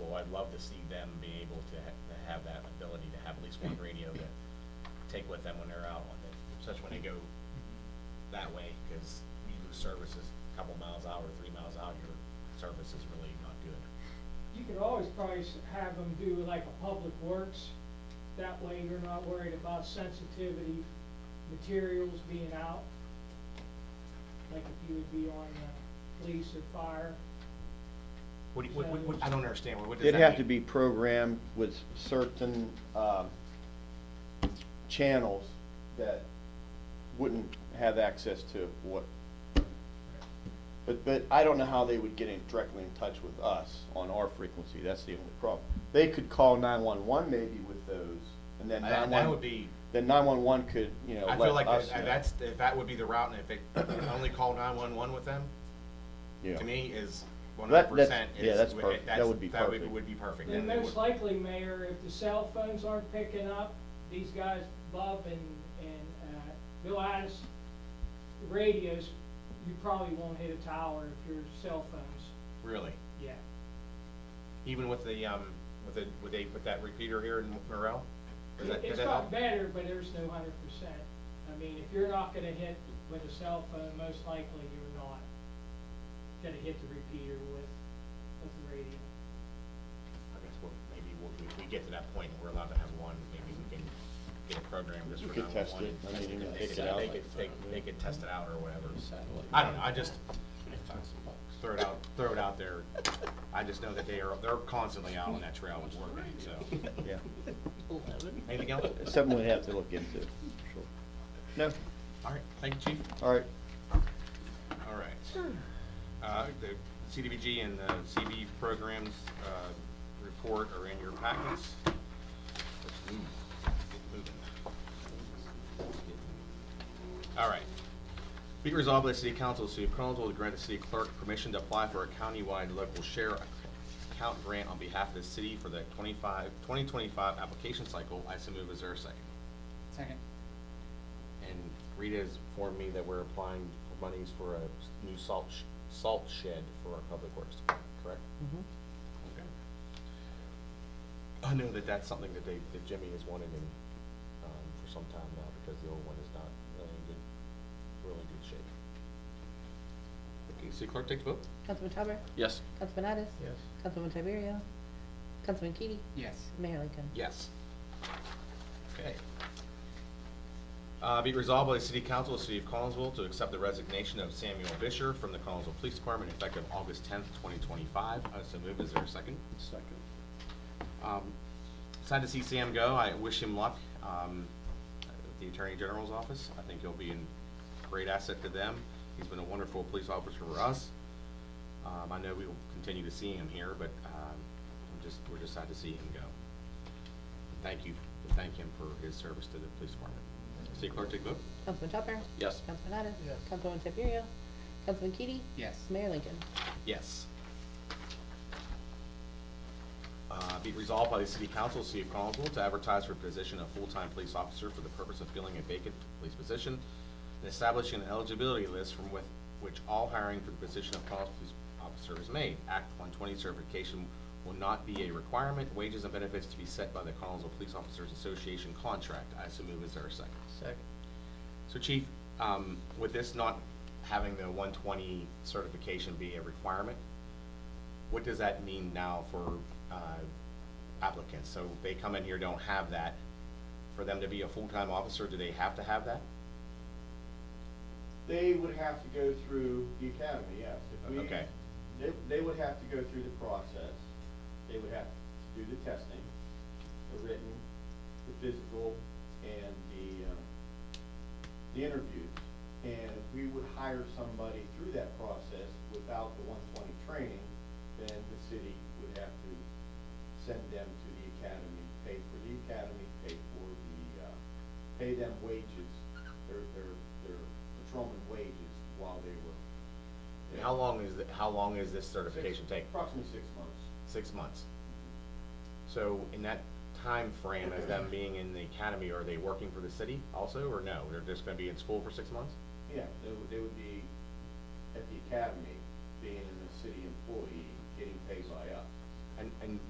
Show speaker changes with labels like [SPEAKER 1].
[SPEAKER 1] I'd love to see them be able to ha- to have that ability to have at least one radio to take with them when they're out on the, especially when they go that way, because you lose services a couple miles out or three miles out, your service is really not good.
[SPEAKER 2] You could always probably s- have them do like a public works, that way you're not worried about sensitivity materials being out. Like if you would be on uh, police or fire,
[SPEAKER 1] What, do you- what, what- what, I don't understand, what what does that
[SPEAKER 3] It'd
[SPEAKER 1] mean?
[SPEAKER 3] have to be programmed with certain, um, channels that wouldn't have access to what. But, but I don't know how they would get in directly in touch with us on our frequency, that's the only problem. They could call nine-one-one maybe with those, and then
[SPEAKER 1] I- That would
[SPEAKER 3] nine-one,
[SPEAKER 1] be,
[SPEAKER 3] then nine-one-one could, you know,
[SPEAKER 1] I feel
[SPEAKER 3] let
[SPEAKER 1] like
[SPEAKER 3] us
[SPEAKER 1] that-
[SPEAKER 3] know.
[SPEAKER 1] that's, if that would be the route, and if they only call nine-one-one with them,
[SPEAKER 3] Yeah.
[SPEAKER 1] to me is one
[SPEAKER 3] That-
[SPEAKER 1] hundred
[SPEAKER 3] that's-
[SPEAKER 1] percent.
[SPEAKER 3] yeah, that's perfect. That would be
[SPEAKER 1] That
[SPEAKER 3] perfect.
[SPEAKER 1] would be perfect.
[SPEAKER 2] then
[SPEAKER 1] And it would-
[SPEAKER 2] most likely, Mayor, if the cell phones aren't picking up, these guys, Bob and, and, uh, Bill Addis, the radios, you probably won't hit a tower if your cell phones,
[SPEAKER 1] Really,
[SPEAKER 2] yeah.
[SPEAKER 1] even with the, um, with the, would they put that repeater here in Morel? Does that, does
[SPEAKER 2] It's
[SPEAKER 1] that
[SPEAKER 2] got
[SPEAKER 1] help?
[SPEAKER 2] better, but there's no hundred percent. I mean, if you're not gonna hit with a cell phone, most likely you're not gonna hit the repeater with, with the radio.
[SPEAKER 1] I guess we'll, maybe we'll, if we get to that point, and we're allowed to have one, maybe we can get a program just
[SPEAKER 3] We
[SPEAKER 1] for
[SPEAKER 3] could
[SPEAKER 1] nine
[SPEAKER 3] test
[SPEAKER 1] one.
[SPEAKER 3] it. I mean, you can
[SPEAKER 1] They
[SPEAKER 3] take
[SPEAKER 1] could,
[SPEAKER 3] it out
[SPEAKER 1] they
[SPEAKER 3] like
[SPEAKER 1] could,
[SPEAKER 3] that,
[SPEAKER 1] they,
[SPEAKER 3] yeah.
[SPEAKER 1] they could test it out or whatever.
[SPEAKER 4] Satellite.
[SPEAKER 1] I don't know, I just throw it out, throw it out there. I just know that they are, they're constantly out on that trail and working, so.
[SPEAKER 3] Yeah,
[SPEAKER 1] Anything else?
[SPEAKER 3] something we'd have to look into, for sure. No,
[SPEAKER 1] All right, thank you, chief.
[SPEAKER 3] all right.
[SPEAKER 1] All right. Uh, The CDBG and the CB programs uh, report are in your packets. Let's move, get moving. All right. Be it resolved by the City Council, of the City of Collinsville, to grant the city clerk permission to apply for a countywide local share account grant on behalf of the city for the 25, 2025 application cycle. I so move, is there a second?
[SPEAKER 5] Second.
[SPEAKER 1] And Rita has informed me that we're applying for monies for a new salt, sh- salt shed for our public works, correct? Okay. I know that that's something that they, that Jimmy has wanted in, um, for some time now, because the old one is not really in good, really good shape. Okay, city clerk take the vote?
[SPEAKER 6] Councilman Tupper?
[SPEAKER 4] Yes.
[SPEAKER 6] Councilman Addis?
[SPEAKER 1] Yes.
[SPEAKER 6] Councilman Tiberio? Councilman Keady?
[SPEAKER 5] Yes.
[SPEAKER 6] Mayor Lincoln?
[SPEAKER 1] Yes. Okay. Uh, be it resolved by the City Council of the City of Collinsville to accept the resignation of Samuel Fisher from the Collinsville Police Department effective August tenth, twenty twenty-five. I so move. Is there a second?
[SPEAKER 4] Second.
[SPEAKER 1] Um, Sad to see Sam go. I wish him luck um, at the Attorney General's office. I think he'll be a great asset to them. He's been a wonderful police officer for us. Um, I know we will continue to see him here, but um, I'm just, we're just sad to see him go. Thank you, thank him for his service to the police department. City Clerk, take the vote.
[SPEAKER 6] Councilman Tupper?
[SPEAKER 4] Yes.
[SPEAKER 6] Councilman Addis? Yes. Councilman Tiberio? Councilman Keady?
[SPEAKER 5] Yes.
[SPEAKER 6] Mayor Lincoln?
[SPEAKER 1] Yes. Uh, Be it resolved by the City Council, City of Collinsville, to advertise for a position of full-time police officer for the purpose of filling a vacant police position and establishing an eligibility list from with, which all hiring for the position of Collinsville Police Officer is made. Act one twenty certification will not be a requirement. Wages and benefits to be set by the Collinsville Police Officers Association contract. I so move. Is there a second? Second. So Chief, um, with this not having the one twenty certification be a requirement, what does that mean now for, uh, applicants? So if they come in here, don't have that, for them to be a full-time officer, do they have to have that?
[SPEAKER 3] They would have to go through the academy, yes. If we-
[SPEAKER 1] Okay.
[SPEAKER 3] They, they would have to go through the process. They would have to do the testing, the written, the physical, and the, um, the interviews. And if we would hire somebody through that process without the one twenty training, then the city would have to send them to the academy, pay for the academy, pay for the, uh, pay them wages, their, their, their patrolman wages while they were.
[SPEAKER 1] And how long is, the- how long is this certification
[SPEAKER 3] Six-
[SPEAKER 1] take?
[SPEAKER 3] Approximately six months.
[SPEAKER 1] Six months. So in that time frame, as them being in the academy, are they working for the city also, or no? They're just gonna be in school for six months?
[SPEAKER 3] Yeah, they would, they would be at the academy, being a city employee, getting paid by us.
[SPEAKER 1] And, and